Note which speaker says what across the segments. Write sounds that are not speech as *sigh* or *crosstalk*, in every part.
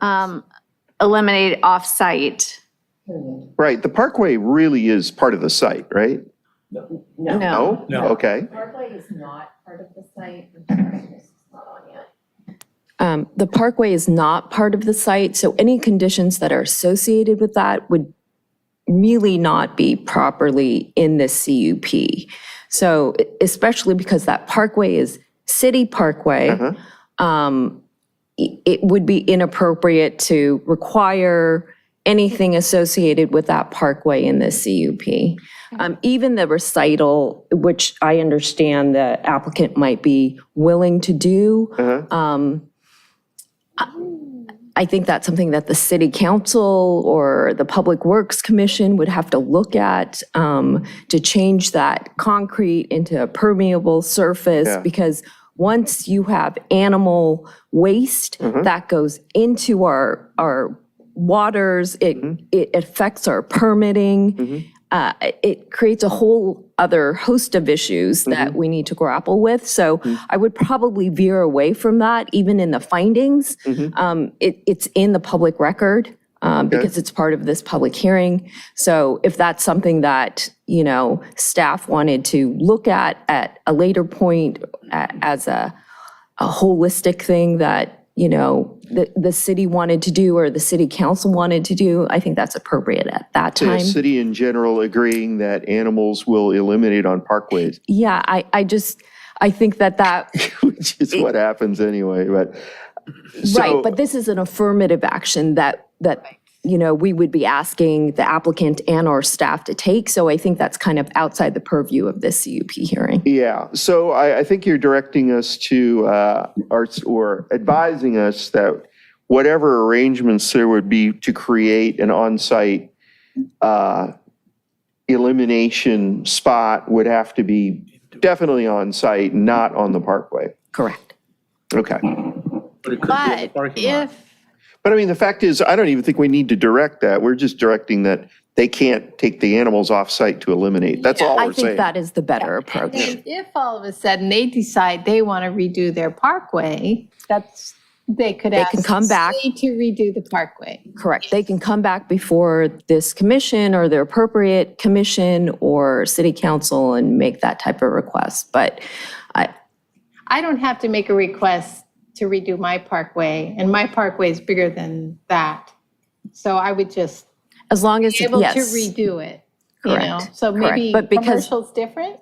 Speaker 1: um, eliminate off-site.
Speaker 2: period.
Speaker 3: Right, the parkway really is part of the site, right?
Speaker 2: No,
Speaker 3: No?
Speaker 4: No.
Speaker 3: Okay,
Speaker 2: Parkway is not part of the site. Construction is not on yet.
Speaker 5: Um, The parkway is not part of the site, so any conditions that are associated with that would really not be properly in the CUP. So e- especially because that parkway is city parkway,
Speaker 2: Mm-hmm.
Speaker 5: um, i- it would be inappropriate to require anything associated with that parkway in the CUP. Um, Even the recital, which I understand the applicant might be willing to do, I think that's something that the city council or the Public Works Commission would have to look at um, to change that concrete into a permeable surface.
Speaker 3: Yeah.
Speaker 5: Because once you have animal waste that goes into our, our waters, it, it affects our permitting. Uh, It creates a whole other host of issues that we need to grapple with. So I would probably veer away from that, even in the findings. Um, It, it's in the public record um, because it's part of this public hearing. So if that's something that, you know, staff wanted to look at at a later point a- as a, a holistic thing that, you know, the, the city wanted to do or the city council wanted to do, I think that's appropriate at that
Speaker 3: the
Speaker 5: time.
Speaker 3: city in general agreeing that animals will eliminate on parkways, *laughs*
Speaker 5: Yeah, I, I just, I think that that,
Speaker 3: which is what happens anyway, but. so-
Speaker 5: right, but this is an affirmative action that, that, you know, we would be asking the applicant and our staff to take. So I think that's kind of outside the purview of this CUP hearing.
Speaker 3: Yeah, so I, I think you're directing us to, uh, or, or advising us that whatever arrangements there would be to create an on-site uh, elimination spot would have to be definitely on-site, not on the parkway.
Speaker 5: Correct.
Speaker 3: Okay.
Speaker 4: But it could be in the
Speaker 1: But
Speaker 4: parking lot.
Speaker 1: if,
Speaker 3: But I mean, the fact is, I don't even think we need to direct that. We're just directing that they can't take the animals off-site to eliminate. That's all
Speaker 5: I
Speaker 3: we're
Speaker 5: think
Speaker 3: saying.
Speaker 5: that is the better
Speaker 1: and
Speaker 5: approach.
Speaker 1: then if all of a sudden they decide they want to redo their parkway, that's, they could
Speaker 5: They
Speaker 1: ask.
Speaker 5: can come back.
Speaker 1: the city To redo the parkway.
Speaker 5: Correct. They can come back before this commission or their appropriate commission or city council and make that type of request. But I,
Speaker 1: I don't have to make a request to redo my parkway, and my parkway is bigger than that. So I would just
Speaker 5: as long as,
Speaker 1: be able to
Speaker 5: yes.
Speaker 1: redo it, you know?
Speaker 5: Correct,
Speaker 1: So
Speaker 5: correct.
Speaker 1: maybe
Speaker 5: But because-
Speaker 1: commercial's different?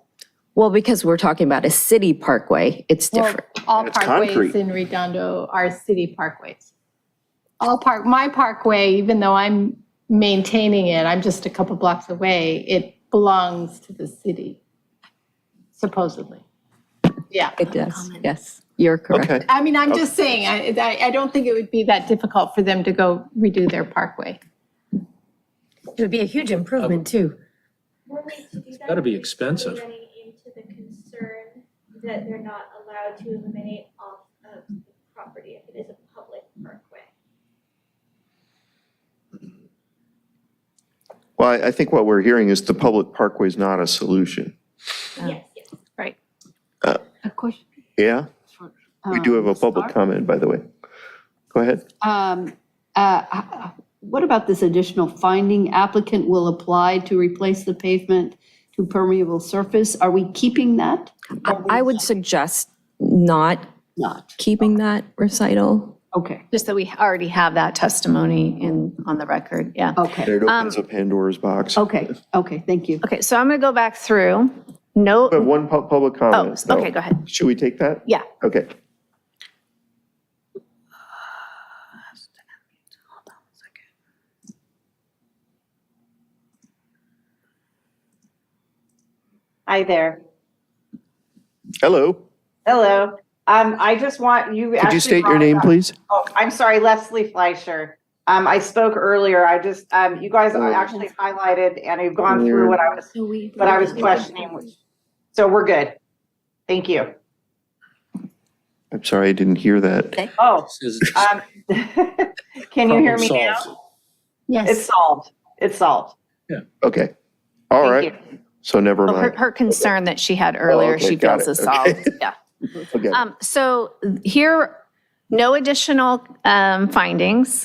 Speaker 5: Well, because we're talking about a city parkway, it's
Speaker 1: Well,
Speaker 5: different.
Speaker 1: all
Speaker 3: It's concrete.
Speaker 1: parkways in Redondo are city parkways. All park, my parkway, even though I'm maintaining it, I'm just a couple blocks away, it belongs to the city, supposedly. Yeah.
Speaker 5: It does, yes. You're correct.
Speaker 3: Okay,
Speaker 1: I mean, I'm just saying, I, I, I don't think it would be that difficult for them to go redo their parkway.
Speaker 6: It would be a huge improvement too.
Speaker 7: It's
Speaker 4: gotta be expensive.
Speaker 7: Running into the concern that they're not allowed to eliminate off of the property if it is a public parkway.
Speaker 3: well, I- I think what we're hearing is the public parkway is not a solution.
Speaker 7: Yes, yes.
Speaker 1: Right.
Speaker 8: A question.
Speaker 3: Yeah, we do have a public comment, by the way. Go ahead.
Speaker 8: Um, uh, h- What about this additional finding applicant will apply to replace the pavement to permeable surface? Are we keeping that?
Speaker 5: I I would suggest not
Speaker 8: Not.
Speaker 5: keeping that recital.
Speaker 8: Okay,
Speaker 1: Just that we already have that testimony in, on the record, yeah.
Speaker 8: okay,
Speaker 3: It opens up Pandora's box.
Speaker 8: okay, okay, thank you.
Speaker 1: Okay, so I'm going to go back through. No,
Speaker 3: But one pub- public
Speaker 1: oh,
Speaker 3: comment. though.
Speaker 1: okay, go ahead.
Speaker 3: Should we take that?
Speaker 1: Yeah.
Speaker 3: Okay.
Speaker 9: Hi there.
Speaker 3: Hello,
Speaker 9: Hello. Um, I just want you.
Speaker 3: could
Speaker 9: actually
Speaker 3: you state your
Speaker 9: brought
Speaker 3: name,
Speaker 9: up-
Speaker 3: please?
Speaker 9: Oh, I'm sorry, Leslie Fleischer. Um, I spoke earlier. I just, um, you guys
Speaker 3: Oh.
Speaker 9: actually highlighted and you've gone through what I was, what I was questioning. So we're good. Thank you.
Speaker 3: I'm sorry, I didn't hear that.
Speaker 9: Oh,
Speaker 4: This is
Speaker 9: um, *laughs* can you hear
Speaker 4: problem
Speaker 9: me now?
Speaker 4: solved.
Speaker 9: It's solved. It's solved.
Speaker 3: Okay, all
Speaker 9: Thank
Speaker 3: right,
Speaker 9: you.
Speaker 3: so never
Speaker 1: Her,
Speaker 3: mind.
Speaker 1: her concern that she had earlier,
Speaker 3: okay,
Speaker 1: she
Speaker 3: got
Speaker 1: feels
Speaker 3: it,
Speaker 1: is
Speaker 3: okay.
Speaker 1: solved, yeah.
Speaker 3: Okay.
Speaker 1: Um, so here, no additional, um, findings.